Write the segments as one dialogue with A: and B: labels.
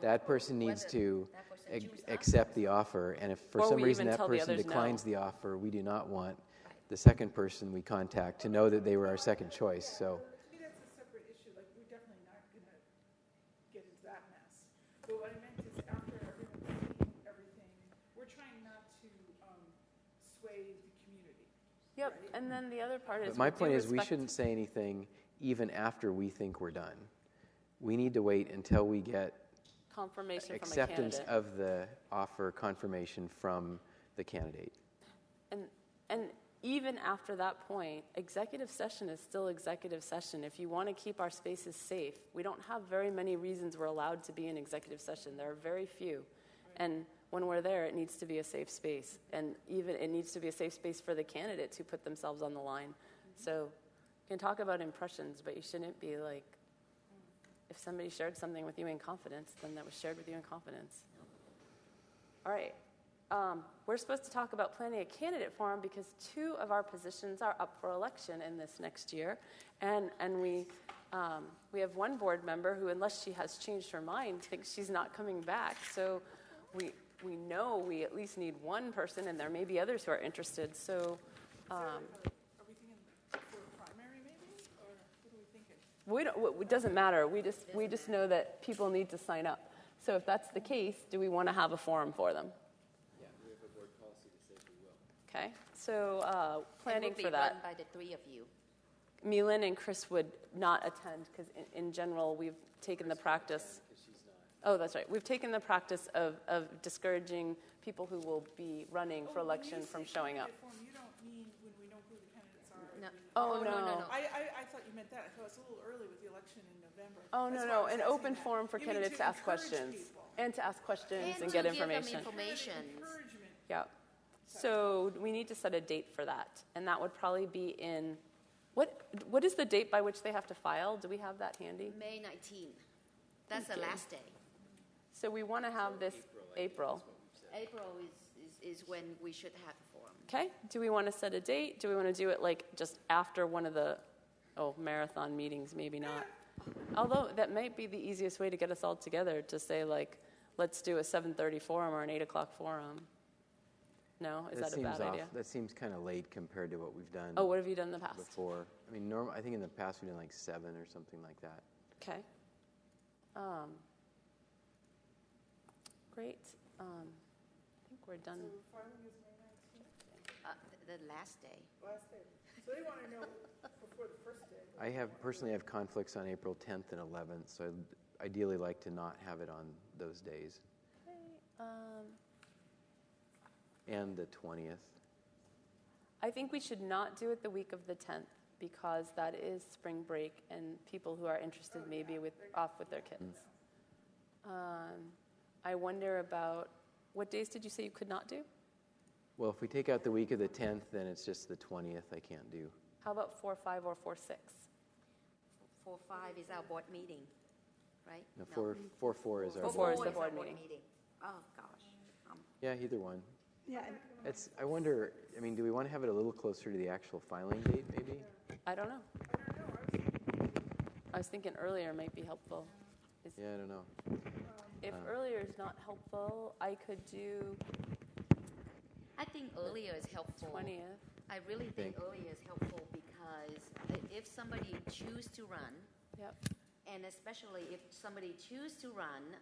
A: that person needs
B: whether
A: to
B: that person
A: ac-
B: choose us.
A: accept the offer, and if for
C: Or
A: some
C: we
A: reason
C: even
A: that
C: tell the
A: person
C: others no.
A: declines the offer, we do not want the second person we contact to know that they were our second choice, so.
D: I mean, that's a separate issue, like, we're definitely not gonna get into that mess. But what I meant is after everyone's seen everything, we're trying not to, um, sway the community.
C: Yep, and then the other part
A: But
C: is.
A: my
C: we do
A: point is, we
C: respect-
A: shouldn't say anything even after we think we're done. We need to wait until we get
C: Confirmation from a
A: acceptance
C: candidate.
A: of the offer confirmation from the candidate.
C: And, and even after that point, executive session is still executive session. If you want to keep our spaces safe, we don't have very many reasons we're allowed to be in executive session. There are very few. And when we're there, it needs to be a safe space. And even, it needs to be a safe space for the candidates who put themselves on the line. So you can talk about impressions, but you shouldn't be like, if somebody shared something with you in confidence, then that was shared with you in confidence. All right. Um, we're supposed to talk about planning a candidate forum because two of our positions are up for election in this next year, and and we um, we have one board member who, unless she has changed her mind, thinks she's not coming back. So we we know we at least need one person, and there may be others who are interested. So. Um,
D: Are we thinking for a primary maybe, or what are we thinking?
C: we don't, w- it doesn't matter. We just, we just know that people need to sign up. So if that's the case, do we want to have a forum for them? Yeah, we have a board policy that says we will. Okay, so uh, planning
B: It will
C: for
B: be
C: that.
B: run by the three of you.
C: Milan and Chris would not attend because, in, in general, we've taken the practice. Oh, that's right. We've taken the practice of, of discouraging people who will be running for
D: Oh, when you
C: election from
D: say
C: showing up.
D: candidate form, You don't mean when we know who the candidates are.
B: No.
D: we-
C: Oh,
B: no, no,
C: no.
B: no.
D: I, I, I thought you meant that, I thought it's a little early with the election in November.
C: Oh,
D: That's
C: no,
D: why I
C: no.
D: was
C: An
D: asking
C: open
D: that.
C: forum for
D: You mean
C: candidates
D: to
C: to ask
D: encourage
C: questions.
D: people.
C: And to ask questions
B: And
C: and
B: to give
C: get
B: them
C: information.
B: info- Information.
D: Encouragement.
C: Yeah. So we need to set a date for that, and that would probably be in, what, what is the date by which they have to file? Do we have that handy?
D: Mm-hmm.
B: May 19. That's the last day.
C: So we want to have this April.
B: April is, is, is when we should have a forum.
C: Okay, do we want to set a date? Do we want to do it like just after one of the, oh, marathon meetings, maybe not. Although that might be the easiest way to get us all together, to say like, let's do a seven thirty forum or an eight o'clock forum. No,
A: That
C: is that a
A: seems
C: bad
A: off-
C: idea?
A: That seemes kind of late compared to what we've done
C: Oh, what have you done in the past?
A: before. I mean, norm, I think in the past we've done like seven or something like that.
C: Okay. Um, great. Um, I think we're done.
D: So filing is May nineteenth,
B: Uh, th- the last day.
D: last day. So they want to know before the first day.
A: I have, personally have conflicts on April 10th and 11th, so I'd ideally like to not have it on those days
C: Okay. Um,
A: and the 20th.
C: I think we should not do it the week of the 10th because that is spring break and people who are interested may be with, off with their kids. Um, I wonder about what days did you say you could not do?
A: Well, if we take out the week of the 10th, then it's just the 20th I can't do.
C: How about 4 5 or 4 6?
B: 4 5 is our board meeting, right?
A: No, 4 4 four is our
C: Four
A: board.
C: four is
A: meeting.
C: the board
B: our
C: meeting.
B: Oh, gosh. Um,
A: Yeah, either one.
D: Yeah, and
A: It's, I wonder, I mean, do we want to have it a little closer to the actual filing date, maybe?
C: I don't know.
D: I don't know, I was thinking
C: I was thinking earlier might be helpful.
A: Yeah, I don't know.
C: If
A: Um,
C: earlier is not helpful, I could do
B: I think earlier is helpful.
C: 20th.
B: I really think
A: Think.
B: earlier is helpful because i- if somebody choose to run,
C: Yep.
B: and especially if somebody choose to run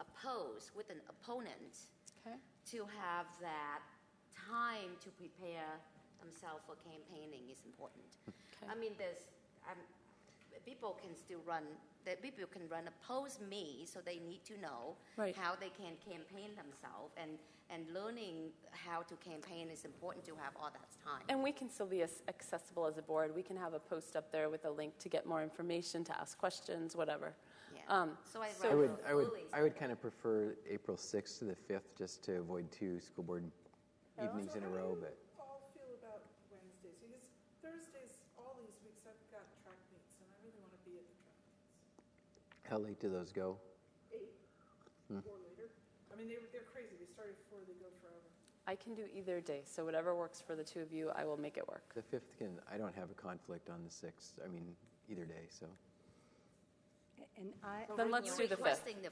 B: oppose with an opponent,
C: Okay.
B: to have that time to prepare themselves for campaigning is important. I mean, there's um, people can still run. That people can run oppose me, so they need to know
C: Right.
B: how they can campaign themselves, and and learning how to campaign is important to have all that time.
C: And we can still be as accessible as a board. We can have a post up there with a link to get more information, to ask questions, whatever.
B: yeah.
C: um,
B: so I,
C: so-
A: I
B: rather
A: would, I would,
B: early
A: I would kind of prefer April 6th to the 5th, just to avoid two school board evenings in a row, but
D: So how do you all feel about Wednesdays? Because Thursdays, all these weeks, I've got track meets, and I really want to be at the track meets.
A: how late do those go?
D: Eight
A: Hmm.
D: or later. I mean, they, they're crazy. They start at four, they go forever.
C: I can do either day, so whatever works for the two of you, I will make it work.
A: The 5th can, I don't have a conflict on the 6th, I mean, either day, so.
E: And I,
C: Then let's
B: You're
C: do the fifth.
B: requesting the